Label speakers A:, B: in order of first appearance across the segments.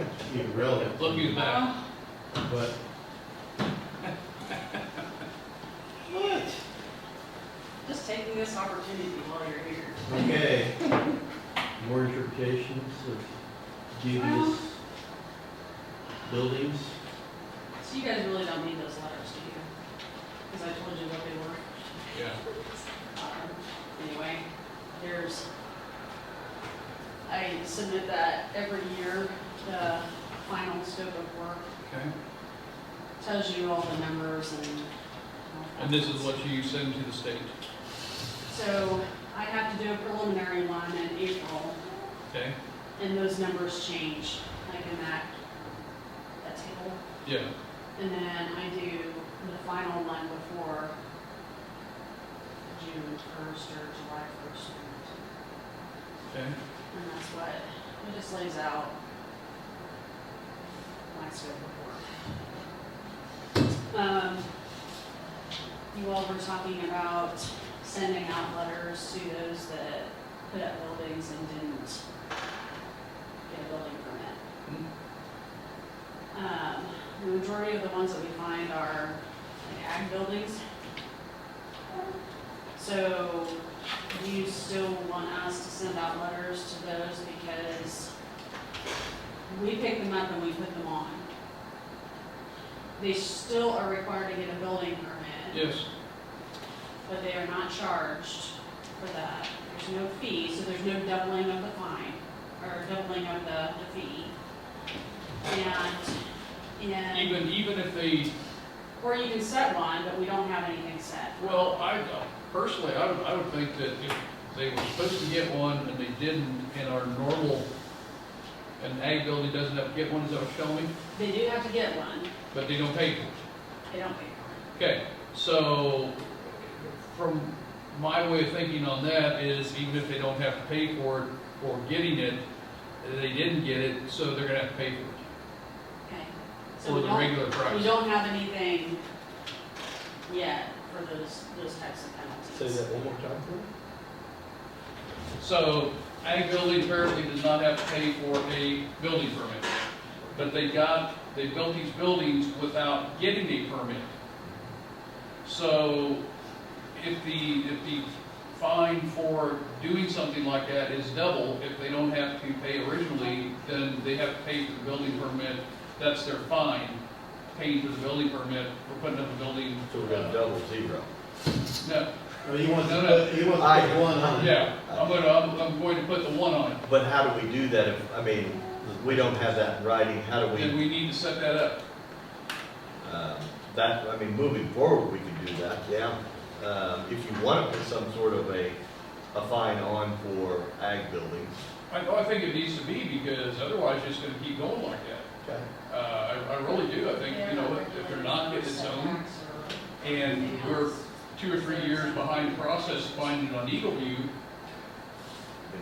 A: It's even relevant.
B: Look who's back.
A: But
C: What?
D: Just taking this opportunity while you're here.
A: Okay, more interpretations of dubious
D: Well-
A: buildings.
D: So you guys really don't need those letters, do you? Because I told you what they were.
B: Yeah.
D: Um, Anyway, there's, I submit that every year, the final scope of work
B: Okay.
D: tells you all the numbers and.
B: And this is what you send to the state.
D: So I have to do a preliminary one in April,
B: Okay.
D: and those numbers change, like in that, that table.
B: Yeah.
D: And then I do the final one before June first or July first.
B: Okay.
D: And that's what, it just lays out my scope of work. Um, you all were talking about sending out letters to those that put up buildings and didn't get a building permit. Um, the majority of the ones that we find are like ag buildings. So do you still want us to send out letters to those because we pick them up and we put them on? They still are required to get a building permit,
B: Yes.
D: but they are not charged for that. There's no fee, so there's no doubling of the fine, or doubling of the, the fee. And, and,
B: Even, even if they,
D: or you can set one, but we don't have anything set.
B: well, I, personally, I would, I would think that if they were supposed to get one and they didn't, and our normal, an ag building doesn't have to get one, is that what you're telling me?
D: They do have to get one,
B: But they don't pay for it.
D: they don't pay for
B: Okay, so from my way of thinking on that is even if they don't have to pay for it for getting it, they didn't get it, so they're gonna have to pay for it,
D: it, okay? So
B: for
D: we
B: the
D: don't-
B: regular price.
D: We don't have anything yet for those, those types of penalties.
A: one more time, please.
B: So, ag building apparently does not have to pay for a building permit, but they got, they built these buildings without getting a permit. So, if the, if the fine for doing something like that is double, if they don't have to pay originally, then they have to pay for the building permit, that's their fine, paying for the building permit for putting up a building.
E: So we're gonna double zero.
B: No,
A: Oh, you want to
B: No, no.
A: put, you want to
E: I-
A: put one on it?
B: yeah, I'm gonna, I'm, I'm going to put the one on it,
E: But how do we do that if, I mean, we don't have that in writing, how do
B: then
E: we,
B: we need to set that up.
E: um, that, I mean, moving forward, we can do that, yeah. Um, If you want to put some sort of a, a fine on for ag buildings,
B: I, oh, I think it needs to be, because otherwise it's gonna keep going like that.
A: Okay.
B: Uh, I, I really do, I think, you know, if if they're not getting its own, and we're two or three years behind the process finding it on Eagle View,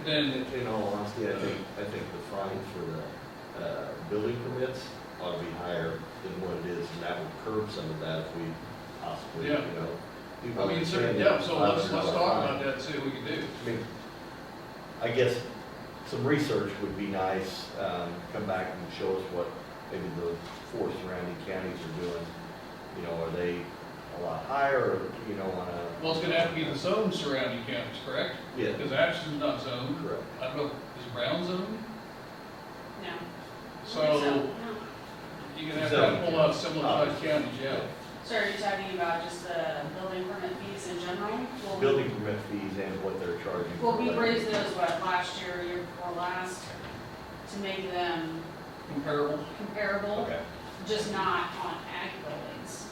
B: then,
E: in in all honesty, I think, I think the fine for the uh, building permits ought to be higher than what it is, and that would curb some of that if we possibly, you
B: Yeah.
E: know. people
B: I mean, so,
E: understand
B: yeah,
E: that
B: so let's,
E: $500
B: let's
E: fine.
B: talk about that, and see what we can do.
E: I mean, I guess some research would be nice, um, come back and show us what maybe the four surrounding counties are doing. You know, are they a lot higher, or, you know, on a?
B: Well, it's gonna have to be the zone surrounding counties, correct?
E: Yeah,
B: Because Ashton's not zoned,
E: correct.
B: I don't know, is Brown zoned?
D: No.
B: So, you're gonna have to pull out similar sized counties, yeah.
D: So are you talking about just the building permit fees in general? Will we-
E: Building permit fees and what they're charging. for
D: Well, we
E: labor.
D: raised those, what, last year, year before last, to make them
B: Comparable,
D: comparable,
E: Okay,
D: just not on ag buildings.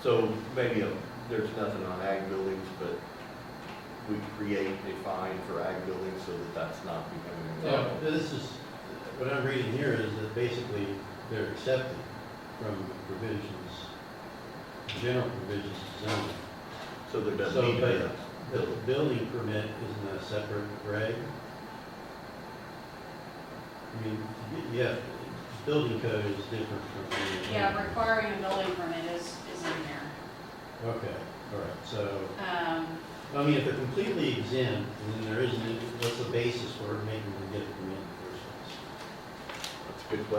E: so maybe uh, there's nothing on ag buildings, but we create a fine for ag buildings so that that's not becoming a
B: Yeah.
E: problem.
A: This is, what I'm reading here is that basically they're accepted from provisions, general provisions of zoning.
E: So there doesn't
A: So,
E: need to be a
A: but The
E: building.
A: building permit isn't a separate reg? I mean, y- yeah, building code is different from. the-
E: Mm-hmm.
D: Yeah, requiring a building permit is, is in there.
A: Okay, all right, so,
D: Um,
A: I mean, if they're completely exempt, then there isn't, what's the basis for making them get a permit in the first place?
E: That's a good question.